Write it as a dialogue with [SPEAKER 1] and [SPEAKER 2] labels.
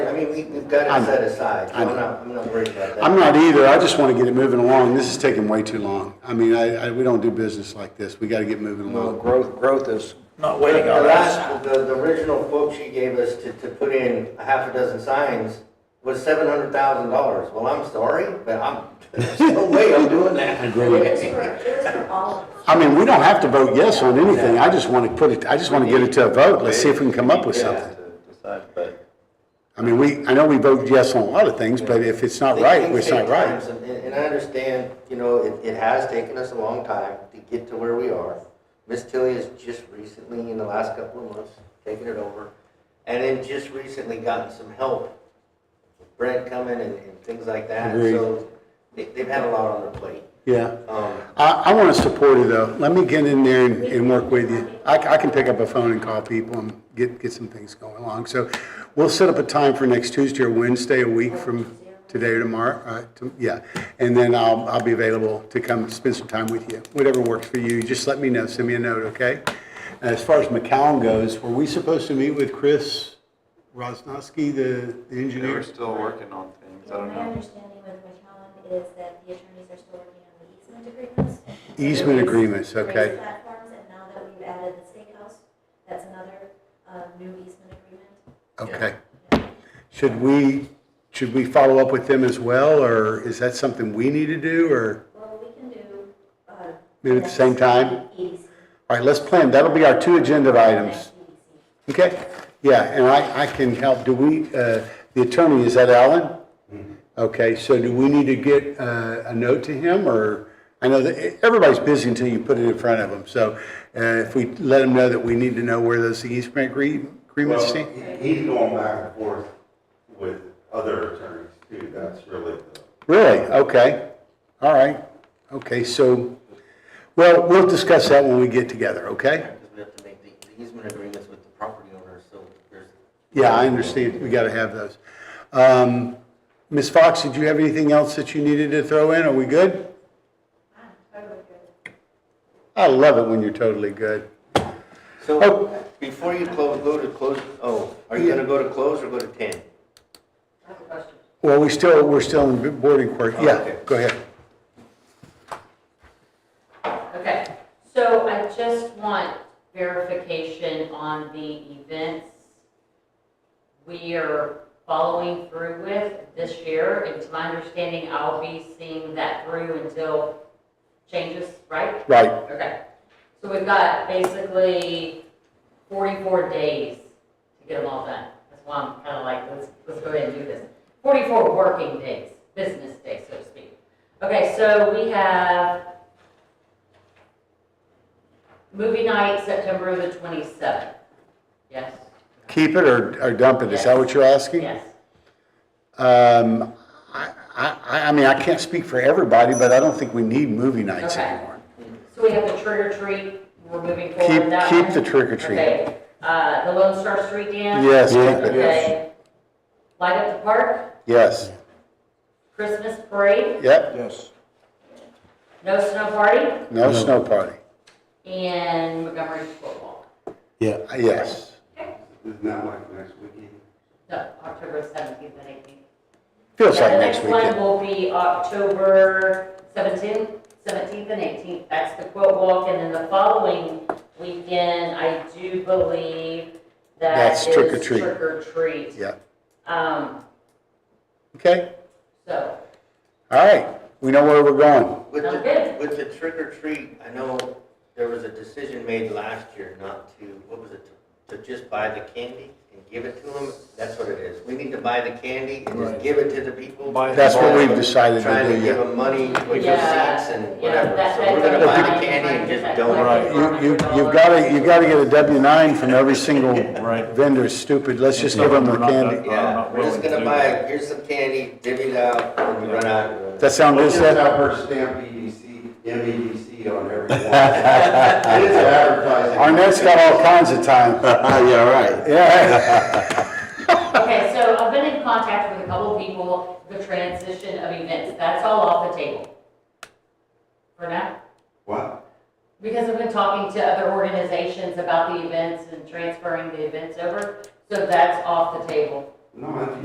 [SPEAKER 1] mean, we, we've got
[SPEAKER 2] I
[SPEAKER 1] it
[SPEAKER 2] know.
[SPEAKER 1] set aside, so
[SPEAKER 2] I
[SPEAKER 1] I'm
[SPEAKER 2] know.
[SPEAKER 1] not, I'm not worried about that.
[SPEAKER 2] I'm not either. I just want to get it moving along. This is taking way too long. I mean, I, I, we don't do business like this. We got to get moving
[SPEAKER 3] Well,
[SPEAKER 2] along.
[SPEAKER 3] growth, growth is,
[SPEAKER 4] Not
[SPEAKER 1] The
[SPEAKER 4] waiting on us.
[SPEAKER 1] last, the, the original quote she gave us to, to put in a half a dozen signs was seven hundred thousand dollars. Well, I'm sorry, but I'm, there's no way I'm doing that.
[SPEAKER 2] Agreed.
[SPEAKER 5] for all of us.
[SPEAKER 2] I mean, we don't have to vote yes on anything. I just want to put it, I just want to get it to a vote. Let's see if we can come up with something. I mean, we, I know we vote yes on a lot of things, but if it's not right,
[SPEAKER 1] Things
[SPEAKER 2] it's not
[SPEAKER 1] take
[SPEAKER 2] right.
[SPEAKER 1] times, And, and I understand, you know, it, it has taken us a long time to get to where we are. Miss Tilly has just recently, in the last couple of months, taken it over, and then just recently gotten some help. Brent coming and, and things like that,
[SPEAKER 2] Agreed.
[SPEAKER 1] so they, they've had a lot on their plate.
[SPEAKER 2] Yeah.
[SPEAKER 1] Um,
[SPEAKER 2] I, I want to support it though. Let me get in there and, and work with you. I, c- I can pick up a phone and call people and get, get some things going along. So we'll set up a time for next Tuesday or Wednesday, a week from today or tomorrow, uh, to- yeah. And then I'll, I'll be available to come spend some time with you. Whatever works for you, just let me know, send me a note, okay? As far as McCown goes, were we supposed to meet with Chris Rosnowski, the, the
[SPEAKER 6] They were
[SPEAKER 2] engineer?
[SPEAKER 6] still working on things, I don't
[SPEAKER 5] My
[SPEAKER 6] know.
[SPEAKER 5] understanding with McCollum is that the attorneys are still working on the easement agreements.
[SPEAKER 2] Easement agreements,
[SPEAKER 5] Raised
[SPEAKER 2] okay.
[SPEAKER 5] platforms, and now that we've added the steakhouse, that's another uh, new easement agreement.
[SPEAKER 2] Okay. Should we, should we follow up with them as well, or is that something we need to do, or?
[SPEAKER 5] Well, we can do. uh,
[SPEAKER 2] Maybe at the same time?
[SPEAKER 5] EDC.
[SPEAKER 2] All right, let's plan, that'll be our two agenda items,
[SPEAKER 5] Next EDC.
[SPEAKER 2] okay? Yeah, and I, I can help, do we, uh, the attorney, is that Alan? Okay, so do we need to get uh, a note to him, or, I know that, everybody's busy until you put it in front of them, so uh, if we let him know that we need to know where those easement agree- agreements
[SPEAKER 7] Well,
[SPEAKER 2] stand?
[SPEAKER 7] he- he's going back and forth with other attorneys too, that's really the.
[SPEAKER 2] Really? Okay. All right. Okay, so, well, we'll discuss that when we get together, okay?
[SPEAKER 1] Because we have to make the the easement agreements with the property owners, so there's.
[SPEAKER 2] Yeah, I understand. We got to have those. Um, Ms. Fox, did you have anything else that you needed to throw in? Are we good?
[SPEAKER 5] Ah, totally good.
[SPEAKER 2] I love it when you're totally good. Oh.
[SPEAKER 1] So, before you close, go to close, oh, are you gonna go to close or go to ten?
[SPEAKER 5] I have a question.
[SPEAKER 2] Well, we still, we're still in boarding court. Yeah,
[SPEAKER 1] Okay.
[SPEAKER 2] go ahead.
[SPEAKER 8] Okay, so I just want verification on the events we are following through with this year. It's my understanding I'll be seeing that through until changes, right?
[SPEAKER 2] Right.
[SPEAKER 8] Okay, so we've got basically 44 days to get them all done. That's why I'm kind of like, let's, let's go ahead and do this. 44 working days, business days, so to speak. Okay, so we have movie night, September the 27th. Yes,
[SPEAKER 2] Keep it or or dump it? Is that what you're asking?
[SPEAKER 8] yes.
[SPEAKER 2] Um, I, I, I mean, I can't speak for everybody, but I don't think we need movie nights
[SPEAKER 8] Okay.
[SPEAKER 2] anymore.
[SPEAKER 8] So we have the trick or treat, we're moving forward
[SPEAKER 2] Keep,
[SPEAKER 8] with that
[SPEAKER 2] keep
[SPEAKER 8] one.
[SPEAKER 2] the trick or treat.
[SPEAKER 8] Okay, uh, the Lone Star Street Dance.
[SPEAKER 2] Yes, keep it.
[SPEAKER 8] Okay. Light up the park,
[SPEAKER 2] Yes.
[SPEAKER 8] Christmas parade,
[SPEAKER 2] Yep.
[SPEAKER 3] yes.
[SPEAKER 8] no snow party,
[SPEAKER 2] No
[SPEAKER 4] No.
[SPEAKER 2] snow party.
[SPEAKER 8] and Montgomery football.
[SPEAKER 2] Yeah. Yes.
[SPEAKER 7] Isn't that like next weekend?
[SPEAKER 8] No, October seventeenth and eighteenth.
[SPEAKER 2] Feels like next
[SPEAKER 8] The next
[SPEAKER 2] weekend.
[SPEAKER 8] one will be October seventeenth, seventeenth and eighteenth. That's the quilt walk, and then the following weekend, I do believe that
[SPEAKER 2] That's
[SPEAKER 8] is
[SPEAKER 2] trick or treat.
[SPEAKER 8] trick or treat.
[SPEAKER 2] Yeah.
[SPEAKER 8] Um,
[SPEAKER 2] Okay.
[SPEAKER 8] so,
[SPEAKER 2] All right. We know where we're going.
[SPEAKER 1] With
[SPEAKER 8] Sounds
[SPEAKER 1] the,
[SPEAKER 8] good.
[SPEAKER 1] with the trick or treat, I know there was a decision made last year not to, what was it? To just buy the candy and give it to them, that's what it is. We need to buy the candy and just give it to the people.
[SPEAKER 4] Buy it.
[SPEAKER 2] That's what we've decided
[SPEAKER 1] Trying
[SPEAKER 2] to
[SPEAKER 1] to
[SPEAKER 2] do.
[SPEAKER 1] give
[SPEAKER 2] yeah.
[SPEAKER 1] them money, which is
[SPEAKER 8] Yeah,
[SPEAKER 1] seats and
[SPEAKER 8] yeah,
[SPEAKER 1] whatever.
[SPEAKER 8] that-
[SPEAKER 1] So we're
[SPEAKER 8] that-
[SPEAKER 1] gonna buy
[SPEAKER 8] that-
[SPEAKER 1] the candy and just donate.
[SPEAKER 4] Right.
[SPEAKER 2] You, you, you've got to, you've got to get a W nine from every single
[SPEAKER 4] Right.
[SPEAKER 2] vendor. It's Stupid. Let's just give them the
[SPEAKER 4] We're not done.
[SPEAKER 2] candy.
[SPEAKER 4] I'm
[SPEAKER 1] Yeah,
[SPEAKER 4] not
[SPEAKER 1] we're just
[SPEAKER 4] willing to
[SPEAKER 1] gonna
[SPEAKER 4] do
[SPEAKER 1] buy,
[SPEAKER 4] that.
[SPEAKER 1] here's some candy, divvy it out, when we run out.
[SPEAKER 2] That sound good,
[SPEAKER 7] Let's just
[SPEAKER 2] Seth?
[SPEAKER 7] have her stamp EDC, MEDC E on every one. It is advertising.
[SPEAKER 2] Arnett's got all kinds of time.
[SPEAKER 3] Yeah, right.
[SPEAKER 2] Yeah.
[SPEAKER 8] okay, so I've been in contact with a couple of people, the transition of events, that's all off the table. For now.
[SPEAKER 7] What?
[SPEAKER 8] Because I've been talking to other organizations about the events and transferring the events over, so that's off the table.
[SPEAKER 7] No, I think